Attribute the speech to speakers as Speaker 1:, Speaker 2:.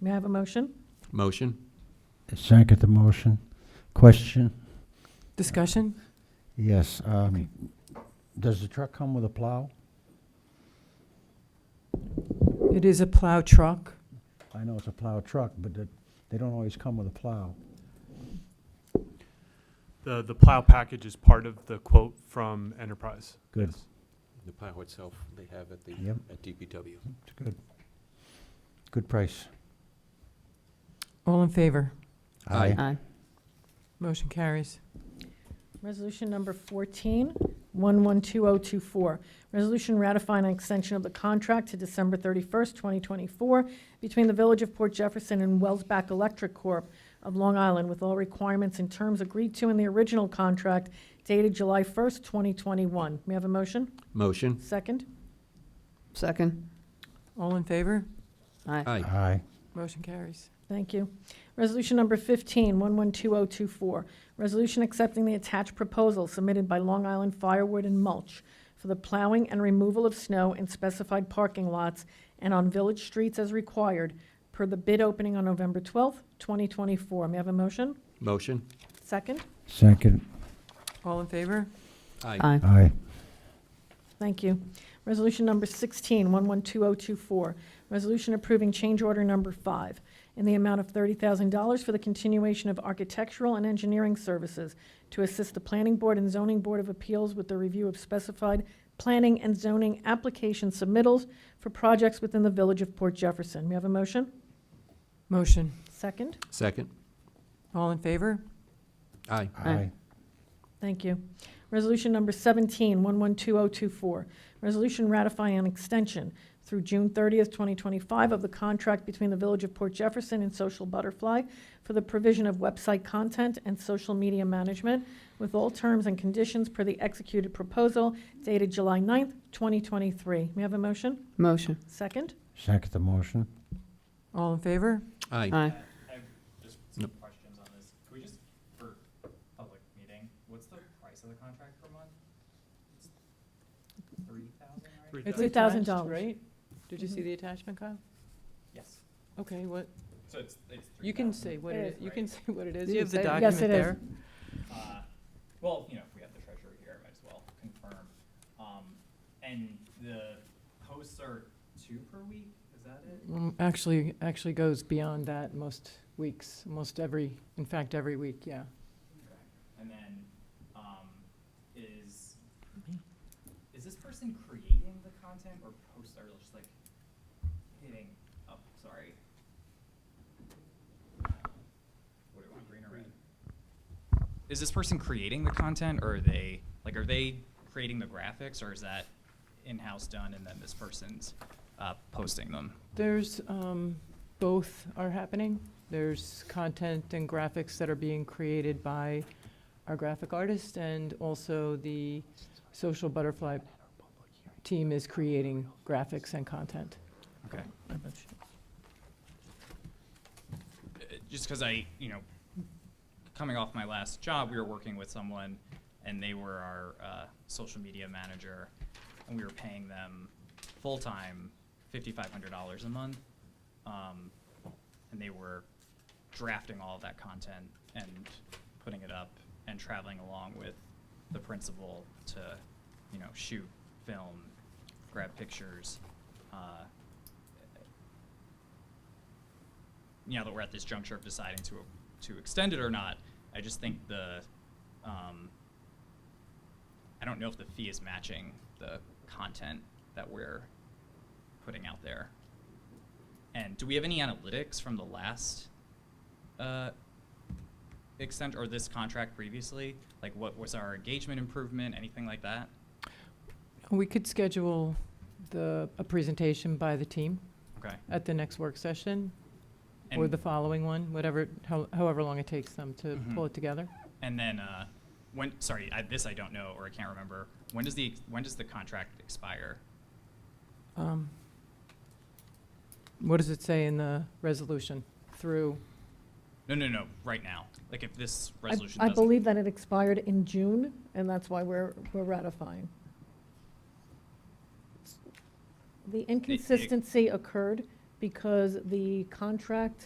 Speaker 1: May I have a motion?
Speaker 2: Motion?
Speaker 3: Second the motion. Question?
Speaker 1: Discussion?
Speaker 3: Yes. um, Does the truck come with a plow?
Speaker 1: It is a plow truck.
Speaker 3: I know it's a plow truck, but that- they don't always come with a plow.
Speaker 4: The, the plow package is part of the quote from Enterprise.
Speaker 3: Good.
Speaker 4: Yes.
Speaker 2: The plow itself they have at the,
Speaker 3: Yep.
Speaker 2: at DPW.
Speaker 3: It's good. Good price.
Speaker 1: All in favor?
Speaker 2: Aye.
Speaker 5: Aye.
Speaker 1: Motion carries. Resolution number 14, 112024. Resolution ratifying an extension of the contract to December 31st, 2024 between the Village of Port Jefferson and Wellsback Electric Corp. of Long Island with all requirements and terms agreed to in the original contract dated July 1st, 2021. May I have a motion?
Speaker 2: Motion?
Speaker 1: Second?
Speaker 5: Second.
Speaker 1: All in favor?
Speaker 5: Aye.
Speaker 2: Aye.
Speaker 3: Aye.
Speaker 1: Motion carries. Thank you. Resolution number 15, 112024, resolution accepting the attached proposal submitted by Long Island Firewood and Mulch for the plowing and removal of snow in specified parking lots and on village streets as required per the bid opening on November 12th, 2024. May I have a motion?
Speaker 2: Motion?
Speaker 1: Second?
Speaker 3: Second.
Speaker 1: All in favor?
Speaker 2: Aye.
Speaker 5: Aye.
Speaker 3: Aye.
Speaker 1: Thank you. Resolution number 16, 112024, resolution approving change order number five in the amount of $30,000 for the continuation of architectural and engineering services to assist the Planning Board and Zoning Board of Appeals with the review of specified planning and zoning application submittals for projects within the Village of Port Jefferson. We have a motion? Motion. Second?
Speaker 2: Second?
Speaker 1: All in favor?
Speaker 2: Aye.
Speaker 5: Aye.
Speaker 1: Thank you. Resolution number 17, 112024, resolution ratifying an extension through June 30th, 2025 of the contract between the Village of Port Jefferson and Social Butterfly for the provision of website content and social media management with all terms and conditions per the executed proposal dated July 9th, 2023. May I have a motion?
Speaker 5: Motion.
Speaker 1: Second?
Speaker 3: Second the motion.
Speaker 1: All in favor?
Speaker 2: Aye.
Speaker 5: Aye.
Speaker 6: Just
Speaker 2: No.
Speaker 6: some questions on this. Can we just, for public meeting, what's the price of the contract per month? Three thousand, right?
Speaker 4: It's
Speaker 1: $3,000. Right? Did
Speaker 5: you see
Speaker 1: the attachment, Kyle?
Speaker 6: Yes.
Speaker 1: Okay, what,
Speaker 6: So it's, it's three thousand.
Speaker 1: what
Speaker 6: it is, you can
Speaker 1: say what it
Speaker 6: is.
Speaker 1: You have the
Speaker 6: document
Speaker 1: there.
Speaker 6: Uh, well, you know, if we have the treasurer here, I might as well confirm. Um, and the posts are two per week, is that it?
Speaker 7: Mm, Actually, actually goes beyond that most weeks, most every, in fact, every week, yeah.
Speaker 6: Okay. And then, um, is, is this person creating the content or post, or just like hitting up, sorry? What do I want, green or red? Is this person creating the content or are they, like, are they creating the graphics or is that in-house done and then this person's, uh, posting them?
Speaker 7: There's, um, both are happening. There's content and graphics that are being created by our graphic artist and also the Social Butterfly team is creating graphics and content.
Speaker 6: Okay. uh, just because I, you know, coming off my last job, we were working with someone, and they were our uh, social media manager, and we were paying them full time, fifty-five hundred dollars a month, um, and they were drafting all of that content and putting it up and traveling along with the principal to, you know, shoot, film, grab pictures. Uh, you know that we're at this juncture of deciding to to extend it or not. I just think the um, I don't know if the fee is matching the content that we're putting out there. And do we have any analytics from the last uh, extent or this contract previously? Like, what was our engagement improvement? Anything like that?
Speaker 7: We could schedule the, a presentation by the team
Speaker 6: Okay.
Speaker 7: at the next work session or
Speaker 6: And-
Speaker 7: the following one, whatever, how- however long it takes them to
Speaker 6: Mhm.
Speaker 7: pull it together.
Speaker 6: And then uh, when? Sorry, I, this I don't know or I can't remember. When does the when does the contract expire?
Speaker 7: Um, What does it say in the resolution? Through,
Speaker 6: No, no, no. Right now, like if this
Speaker 1: I-
Speaker 6: resolution.
Speaker 1: I
Speaker 6: doesn't-
Speaker 1: believe that it expired in June, and that's why we're, we're ratifying. The inconsistency occurred
Speaker 7: because the contract